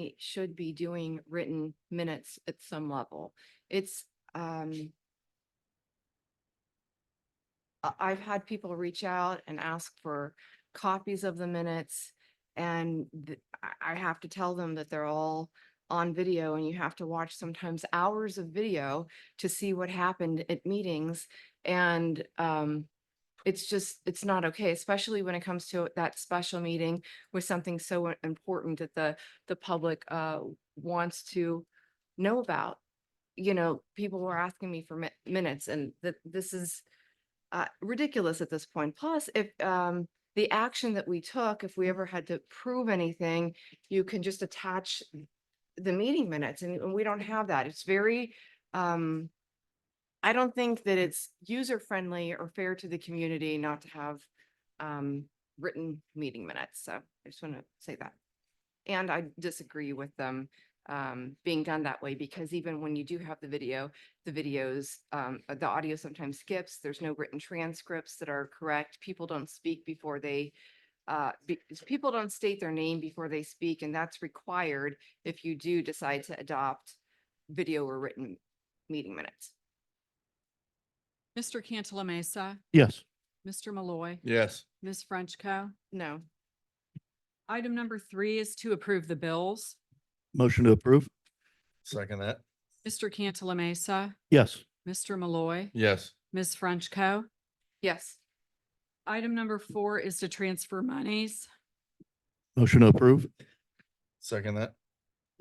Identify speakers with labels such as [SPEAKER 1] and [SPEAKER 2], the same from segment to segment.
[SPEAKER 1] we should be doing written minutes at some level. It's, um, I, I've had people reach out and ask for copies of the minutes. And th- I, I have to tell them that they're all on video and you have to watch sometimes hours of video to see what happened at meetings. And, um, it's just, it's not okay, especially when it comes to that special meeting with something so i- important that the, the public, uh, wants to know about. You know, people were asking me for mi- minutes and that this is, uh, ridiculous at this point. Plus, if, um, the action that we took, if we ever had to prove anything, you can just attach the meeting minutes and and we don't have that. It's very, um, I don't think that it's user friendly or fair to the community not to have um written meeting minutes. So I just want to say that. And I disagree with them um being done that way because even when you do have the video, the videos, um the audio sometimes skips. There's no written transcripts that are correct. People don't speak before they uh be- people don't state their name before they speak and that's required if you do decide to adopt video or written meeting minutes.
[SPEAKER 2] Mr. Cantala Mesa,
[SPEAKER 3] Yes.
[SPEAKER 2] Mr. Malloy,
[SPEAKER 3] Yes.
[SPEAKER 2] Ms. Frenchco.
[SPEAKER 1] No.
[SPEAKER 2] Item number three is to approve the bills.
[SPEAKER 3] Motion to approve. Second that.
[SPEAKER 2] Mr. Cantala Mesa,
[SPEAKER 3] Yes.
[SPEAKER 2] Mr. Malloy,
[SPEAKER 3] Yes.
[SPEAKER 2] Ms. Frenchco.
[SPEAKER 1] Yes.
[SPEAKER 2] Item number four is to transfer monies.
[SPEAKER 3] Motion to approve. Second that.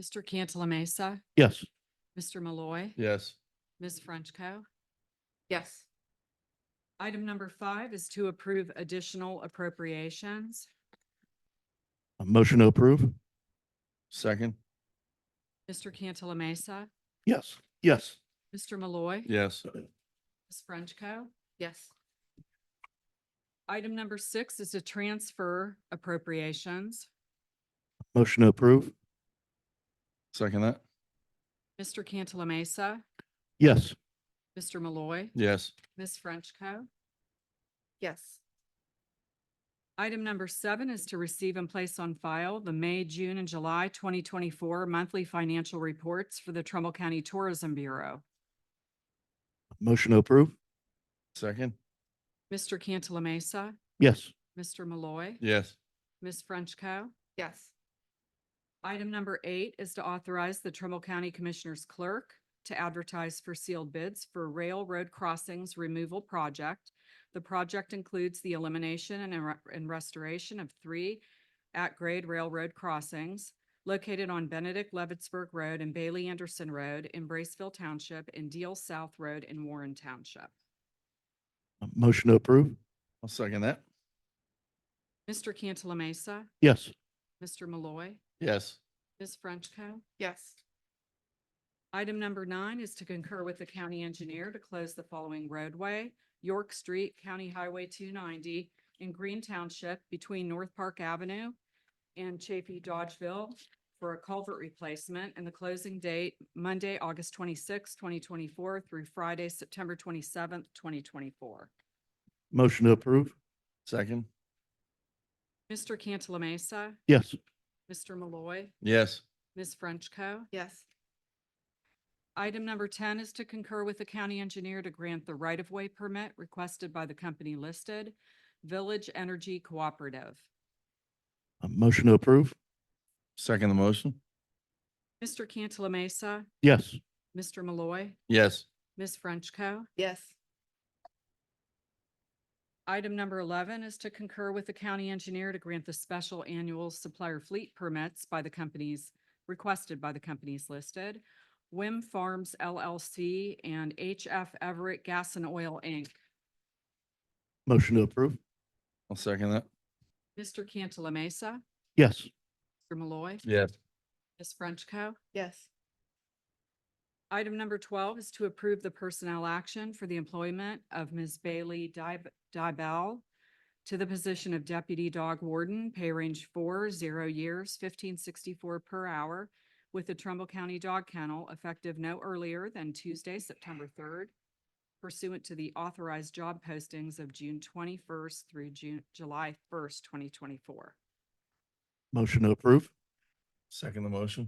[SPEAKER 2] Mr. Cantala Mesa,
[SPEAKER 3] Yes.
[SPEAKER 2] Mr. Malloy,
[SPEAKER 3] Yes.
[SPEAKER 2] Ms. Frenchco.
[SPEAKER 1] Yes.
[SPEAKER 2] Item number five is to approve additional appropriations.
[SPEAKER 3] Motion to approve. Second.
[SPEAKER 2] Mr. Cantala Mesa,
[SPEAKER 3] Yes. Yes.
[SPEAKER 2] Mr. Malloy,
[SPEAKER 3] Yes.
[SPEAKER 2] Ms. Frenchco.
[SPEAKER 1] Yes.
[SPEAKER 2] Item number six is to transfer appropriations.
[SPEAKER 3] Motion to approve. Second that.
[SPEAKER 2] Mr. Cantala Mesa,
[SPEAKER 3] Yes.
[SPEAKER 2] Mr. Malloy,
[SPEAKER 3] Yes.
[SPEAKER 2] Ms. Frenchco.
[SPEAKER 1] Yes.
[SPEAKER 2] Item number seven is to receive and place on file the May, June, and July twenty twenty-four monthly financial reports for the Trumbull County Tourism Bureau.
[SPEAKER 3] Motion to approve. Second.
[SPEAKER 2] Mr. Cantala Mesa,
[SPEAKER 3] Yes.
[SPEAKER 2] Mr. Malloy,
[SPEAKER 3] Yes.
[SPEAKER 2] Ms. Frenchco.
[SPEAKER 1] Yes.
[SPEAKER 2] Item number eight is to authorize the Trumbull County Commissioners Clerk to advertise for sealed bids for railroad crossings removal project. The project includes the elimination and re- and restoration of three at-grade railroad crossings located on Benedict Levittsburg Road and Bailey Anderson Road in Braceville Township and Deal South Road in Warren Township.
[SPEAKER 3] Motion to approve. I'll second that.
[SPEAKER 2] Mr. Cantala Mesa,
[SPEAKER 3] Yes.
[SPEAKER 2] Mr. Malloy,
[SPEAKER 3] Yes.
[SPEAKER 2] Ms. Frenchco.
[SPEAKER 1] Yes.
[SPEAKER 2] Item number nine is to concur with the county engineer to close the following roadway, York Street, County Highway two ninety in Green Township between North Park Avenue and Chafee Dodgeville for a culvert replacement and the closing date Monday, August twenty-sixth, twenty twenty-four through Friday, September twenty-seventh, twenty twenty-four.
[SPEAKER 3] Motion to approve. Second.
[SPEAKER 2] Mr. Cantala Mesa,
[SPEAKER 3] Yes.
[SPEAKER 2] Mr. Malloy,
[SPEAKER 3] Yes.
[SPEAKER 2] Ms. Frenchco.
[SPEAKER 1] Yes.
[SPEAKER 2] Item number ten is to concur with the county engineer to grant the right-of-way permit requested by the company listed, Village Energy Cooperative.
[SPEAKER 3] Motion to approve. Second the motion.
[SPEAKER 2] Mr. Cantala Mesa,
[SPEAKER 3] Yes.
[SPEAKER 2] Mr. Malloy,
[SPEAKER 3] Yes.
[SPEAKER 2] Ms. Frenchco.
[SPEAKER 1] Yes.
[SPEAKER 2] Item number eleven is to concur with the county engineer to grant the special annual supplier fleet permits by the companies, requested by the companies listed, Wim Farms LLC and HF Everett Gas and Oil, Inc.
[SPEAKER 3] Motion to approve. I'll second that.
[SPEAKER 2] Mr. Cantala Mesa,
[SPEAKER 3] Yes.
[SPEAKER 2] Mr. Malloy,
[SPEAKER 3] Yes.
[SPEAKER 2] Ms. Frenchco.
[SPEAKER 1] Yes.
[SPEAKER 2] Item number twelve is to approve the personnel action for the employment of Ms. Bailey Dib- Dibel to the position of Deputy Dog Warden, pay range four, zero years, fifteen sixty-four per hour with the Trumbull County Dog Kennel effective no earlier than Tuesday, September third, pursuant to the authorized job postings of June twenty-first through June, July first, twenty twenty-four.
[SPEAKER 3] Motion to approve. Second the motion.